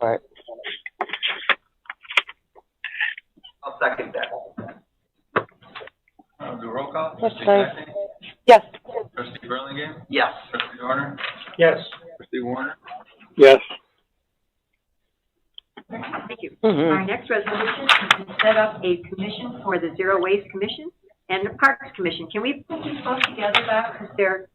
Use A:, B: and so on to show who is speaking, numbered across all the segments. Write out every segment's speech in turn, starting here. A: Alright.
B: I'll second that.
C: Uh, do a roll call.
A: Yes,
C: Trustee
A: please.
C: Connectney?
A: Yes.
C: Trustee Burlingame?
B: Yes.
C: Trustee Dorner?
D: Yes.
C: Trustee Warner?
D: Yes.
E: Thank you.
A: Mm-hmm.
E: Our next resolution is to set up a commission for the Zero Waste Commission and the Parks Commission. Can we put these both together, Bob, because they're,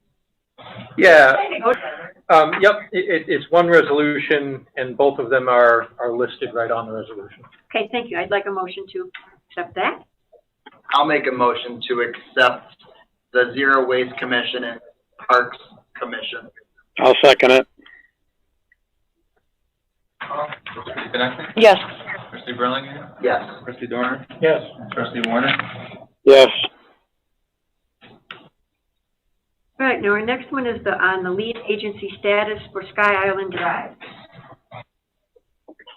D: Yeah,
E: they go together?
D: um, yep, it, it, it's one resolution and both of them are, are listed right on the resolution.
E: Okay, thank you. I'd like a motion to accept that.
B: I'll make a motion to accept the Zero Waste Commission and Parks Commission.
F: I'll second it.
C: Trustee Connectney?
A: Yes.
C: Trustee Burlingame?
B: Yes.
C: Trustee Dorner?
D: Yes.
C: Trustee Warner?
F: Yes,
E: All right, now our next one is the, on the lead agency status for Sky Island Drive.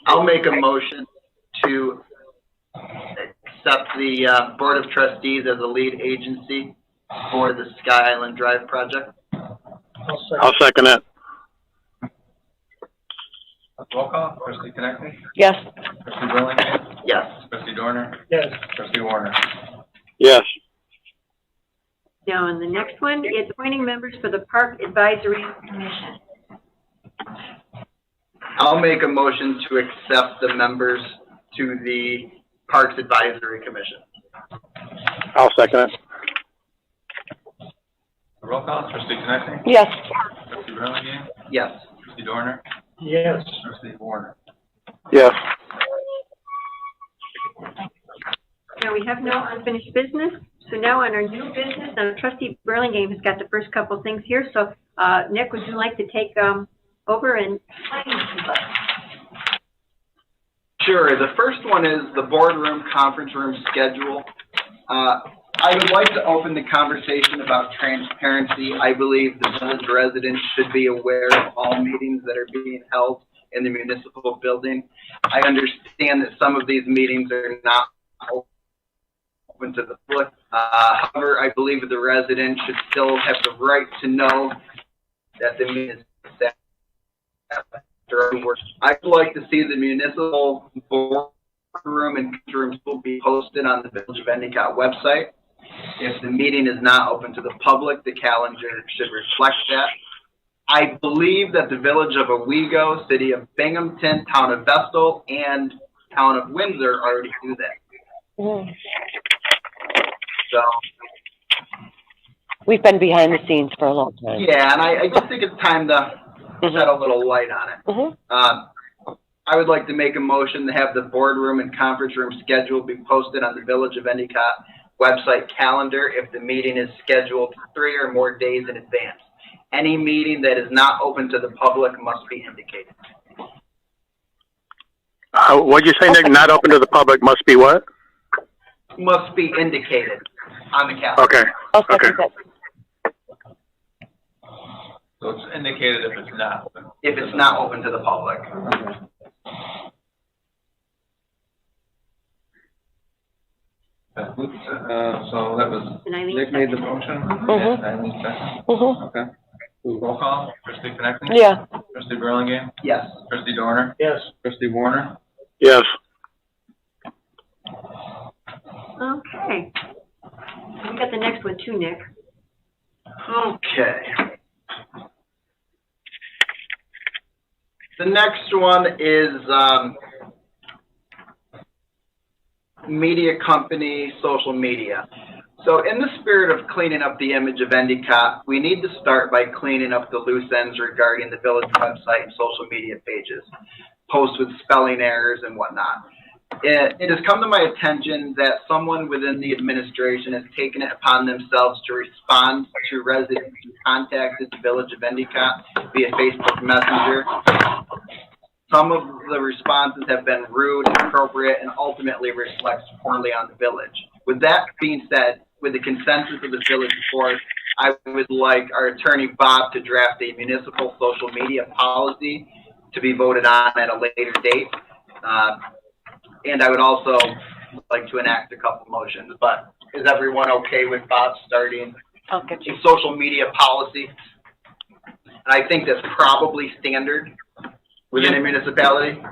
B: I'll make a motion to accept the, uh, Board of Trustees as the lead agency for the Sky Island Drive project.
F: I'll second it.
C: Roll call. Trustee Connectney?
A: Yes.
C: Trustee Burlingame?
B: Yes.
C: Trustee Dorner?
D: Yes.
C: Trustee Warner?
F: Yes,
E: Now, on the next one, it's appointing members for the Park Advisory Commission.
B: I'll make a motion to accept the members to the Parks Advisory Commission.
F: I'll second it.
C: Roll call. Trustee Connectney?
A: Yes.
C: Trustee Burlingame?
B: Yes.
C: Trustee Dorner?
D: Yes.
C: Trustee Warner?
F: Yes,
E: Now, we have no unfinished business, so now on our new business, now trustee Burlingame has got the first couple things here, so, uh, Nick, would you like to take, um, over and explain this to us?
B: Sure. The first one is the boardroom conference room schedule. Uh, I would like to open the conversation about transparency. I believe the village residents should be aware of all meetings that are being held in the municipal building. I understand that some of these meetings are not open to the public. Uh, however, I believe the residents should still have the right to know that the meeting is set after work. I'd like to see the municipal boardroom and rooms will be posted on the Village of Endicott website. If the meeting is not open to the public, the calendar should reflect that. I believe that the Village of Owego, City of Binghamton, Town of Vestal, and Town of Windsor already do that.
A: Mhm.
B: So,
A: We've been behind the scenes for a long time.
B: yeah, and I, I just think it's time to
A: Mm-hmm.
B: shed a little light on it.
A: Mhm.
B: Um, I would like to make a motion to have the boardroom and conference room schedule be posted on the Village of Endicott website calendar if the meeting is scheduled three or more days in advance. Any meeting that is not open to the public must be indicated.
F: uh, what'd you say, Nick? Not open to the public must be what?
B: Must be indicated on the calendar.
F: Okay,
A: I'll second that.
C: So it's indicated if it's not.
B: If it's not open to the public.
C: Uh, so that was,
E: And Eileen
C: Nick made the motion?
A: Mhm.
C: Eileen second?
A: Mhm.
C: Okay. Roll call. Trustee Connectney?
A: Yeah.
C: Trustee Burlingame?
B: Yes.
C: Trustee Dorner?
D: Yes.
C: Trustee Warner?
F: yes,
E: Okay. We got the next one too, Nick.
B: Okay. The next one is, um, media company, social media. So in the spirit of cleaning up the image of Endicott, we need to start by cleaning up the loose ends regarding the village website and social media pages, posts with spelling errors and whatnot. It, it has come to my attention that someone within the administration has taken it upon themselves to respond to residents who contacted the village of Endicott via Facebook Messenger. Some of the responses have been rude, inappropriate, and ultimately reflects poorly on the village. With that being said, with the consensus of the village board, I would like our attorney Bob to draft a municipal social media policy to be voted on at a later date. Uh, and I would also like to enact a couple motions, but is everyone okay with Bob starting
A: I'll get
B: a
A: you.
B: social media policy? And I think that's probably standard within a municipality.